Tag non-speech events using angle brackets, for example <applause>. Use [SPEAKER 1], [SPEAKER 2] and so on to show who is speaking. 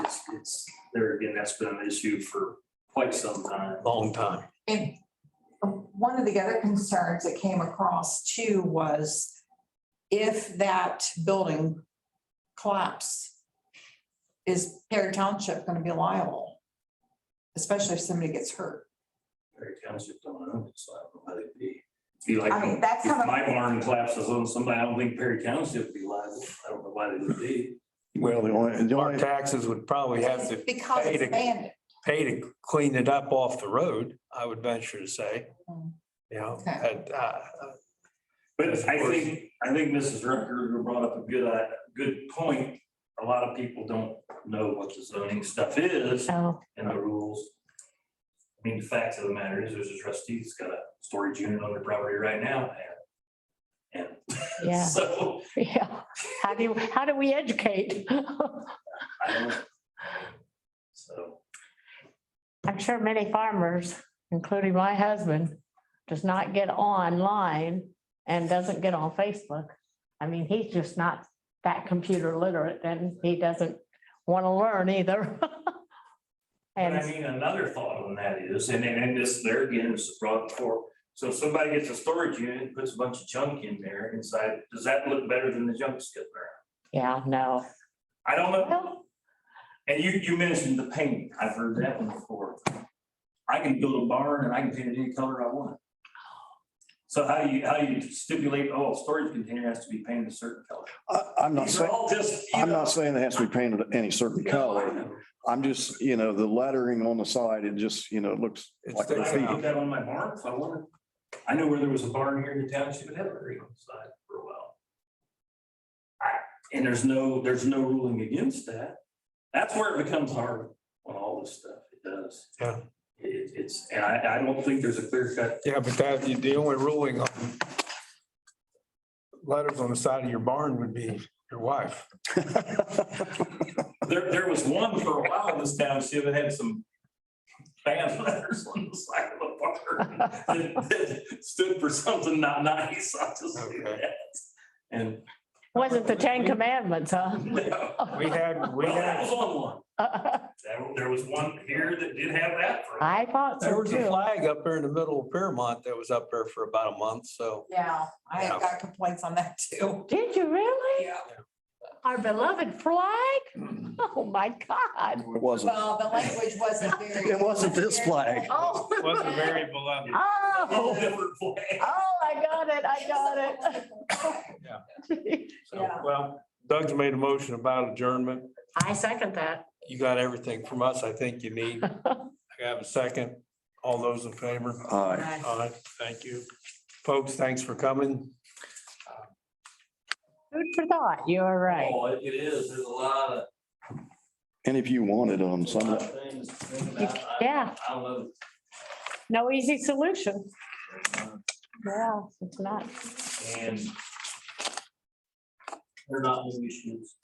[SPEAKER 1] it's, there again, that's been an issue for quite some time.
[SPEAKER 2] long time.
[SPEAKER 3] And one of the other concerns that came across too was if that building collapsed, is Perry Township gonna be liable? Especially if somebody gets hurt.
[SPEAKER 1] Perry Township don't own it, so I don't know how they'd be. Be like,
[SPEAKER 3] I mean, that's
[SPEAKER 1] if
[SPEAKER 3] kind of,
[SPEAKER 1] my barn collapses on somebody, I don't think Perry Township would be liable. I don't know why they would be.
[SPEAKER 4] Well, the only, the
[SPEAKER 2] Our
[SPEAKER 4] only,
[SPEAKER 2] taxes would probably have
[SPEAKER 3] it's
[SPEAKER 2] to
[SPEAKER 3] because
[SPEAKER 2] pay
[SPEAKER 3] it's
[SPEAKER 2] to-
[SPEAKER 3] abandoned.
[SPEAKER 2] pay to clean it up off the road, I would venture to say.
[SPEAKER 3] Mm.
[SPEAKER 2] You know,
[SPEAKER 3] Okay.
[SPEAKER 2] and, uh,
[SPEAKER 1] But I think, I think Mrs. Rucker brought up a good, uh, good point. A lot of people don't know what the zoning stuff is
[SPEAKER 5] Oh,
[SPEAKER 1] and the rules. I mean, the fact of the matter is, there's a trustee that's got a storage unit on their property right now. And and
[SPEAKER 5] yeah, <laughs>
[SPEAKER 1] so,
[SPEAKER 5] yeah. How do, you? how do we educate? <laughs>
[SPEAKER 1] I don't. So.
[SPEAKER 5] I'm sure many farmers, including my husband, does not get online and doesn't get on Facebook. I mean, he's just not that computer literate and he doesn't want to learn either. <laughs>
[SPEAKER 1] But I
[SPEAKER 5] And
[SPEAKER 1] mean, another thought on that is, and and and this, there again, this is brought before, so if somebody gets a storage unit, and puts a bunch of junk in there inside, does that look better than the junk skipping around?
[SPEAKER 5] yeah, no.
[SPEAKER 1] I don't know,
[SPEAKER 5] Well,
[SPEAKER 1] and you you mentioned the paint, I've heard that one before. I can build a barn and I can paint it any color I want. So how do you, how do you stipulate, oh, storage container has to be painted a certain color?
[SPEAKER 4] I, I'm not
[SPEAKER 1] These are
[SPEAKER 4] saying,
[SPEAKER 1] all just, you
[SPEAKER 4] I'm
[SPEAKER 1] know-
[SPEAKER 4] not saying it has to be painted any certain
[SPEAKER 1] No, I
[SPEAKER 4] color.
[SPEAKER 1] know.
[SPEAKER 4] I'm just, you know, the lettering on the side, it just, you know, it looks
[SPEAKER 2] It
[SPEAKER 4] like.
[SPEAKER 1] I
[SPEAKER 2] sticks
[SPEAKER 1] can
[SPEAKER 2] out.
[SPEAKER 4] a
[SPEAKER 1] put that on my barn if I wanted. I know where there was a barn here in the township, it had a green on the side for a while. I- And there's no, there's no ruling against that. That's where it becomes hard on all this stuff. It does.
[SPEAKER 2] Yeah.
[SPEAKER 1] It, it's, and I, I don't think there's a clear cut.
[SPEAKER 2] yeah, but that, the only ruling on letters on the side of your barn would be your wife.
[SPEAKER 1] There, there was one for a while in this township that had some bad letters on the side of the barn that- that stood for something not nice. I'll just say
[SPEAKER 2] Okay.
[SPEAKER 1] that. And.
[SPEAKER 5] Wasn't the Ten Commandments, huh? <laughs>
[SPEAKER 1] No.
[SPEAKER 2] We had, we
[SPEAKER 1] Well, that was
[SPEAKER 2] had,
[SPEAKER 1] on one. There, there was one here that did have that for.
[SPEAKER 5] I thought
[SPEAKER 2] there
[SPEAKER 5] so
[SPEAKER 2] was a
[SPEAKER 5] too.
[SPEAKER 2] flag up there in the middle of Paramount that was up there for about a month, so.
[SPEAKER 3] Yeah, I
[SPEAKER 2] Yeah.
[SPEAKER 3] have got complaints on that too.
[SPEAKER 5] Did you really?
[SPEAKER 3] Yeah.
[SPEAKER 5] Our beloved flag?
[SPEAKER 2] Mm.
[SPEAKER 5] <laughs> Oh, my God.
[SPEAKER 4] It wasn't,
[SPEAKER 3] Well, the language <laughs> wasn't very.
[SPEAKER 4] It wasn't this flag.
[SPEAKER 5] Oh.
[SPEAKER 2] Wasn't very beloved.
[SPEAKER 1] All <laughs>
[SPEAKER 5] Oh,
[SPEAKER 1] different way.
[SPEAKER 5] oh, I got it, I got it.
[SPEAKER 2] So,
[SPEAKER 3] Yeah.
[SPEAKER 2] well, Doug's made a motion about adjournment.
[SPEAKER 5] <laughs> I second that.
[SPEAKER 2] You got everything from us, I think you need. I have a second. All those in favor?
[SPEAKER 4] uh,
[SPEAKER 2] Aye, thank you. Folks, thanks for coming.
[SPEAKER 5] Food for thought, you're right.
[SPEAKER 1] Oh, it is, there's a lot of.
[SPEAKER 4] and if you wanted them,
[SPEAKER 1] a
[SPEAKER 4] some,
[SPEAKER 1] lot of things to think about. I-
[SPEAKER 5] Yeah,
[SPEAKER 1] I love it.
[SPEAKER 5] no easy solution. Yeah, it's not.
[SPEAKER 1] And. They're not new issues.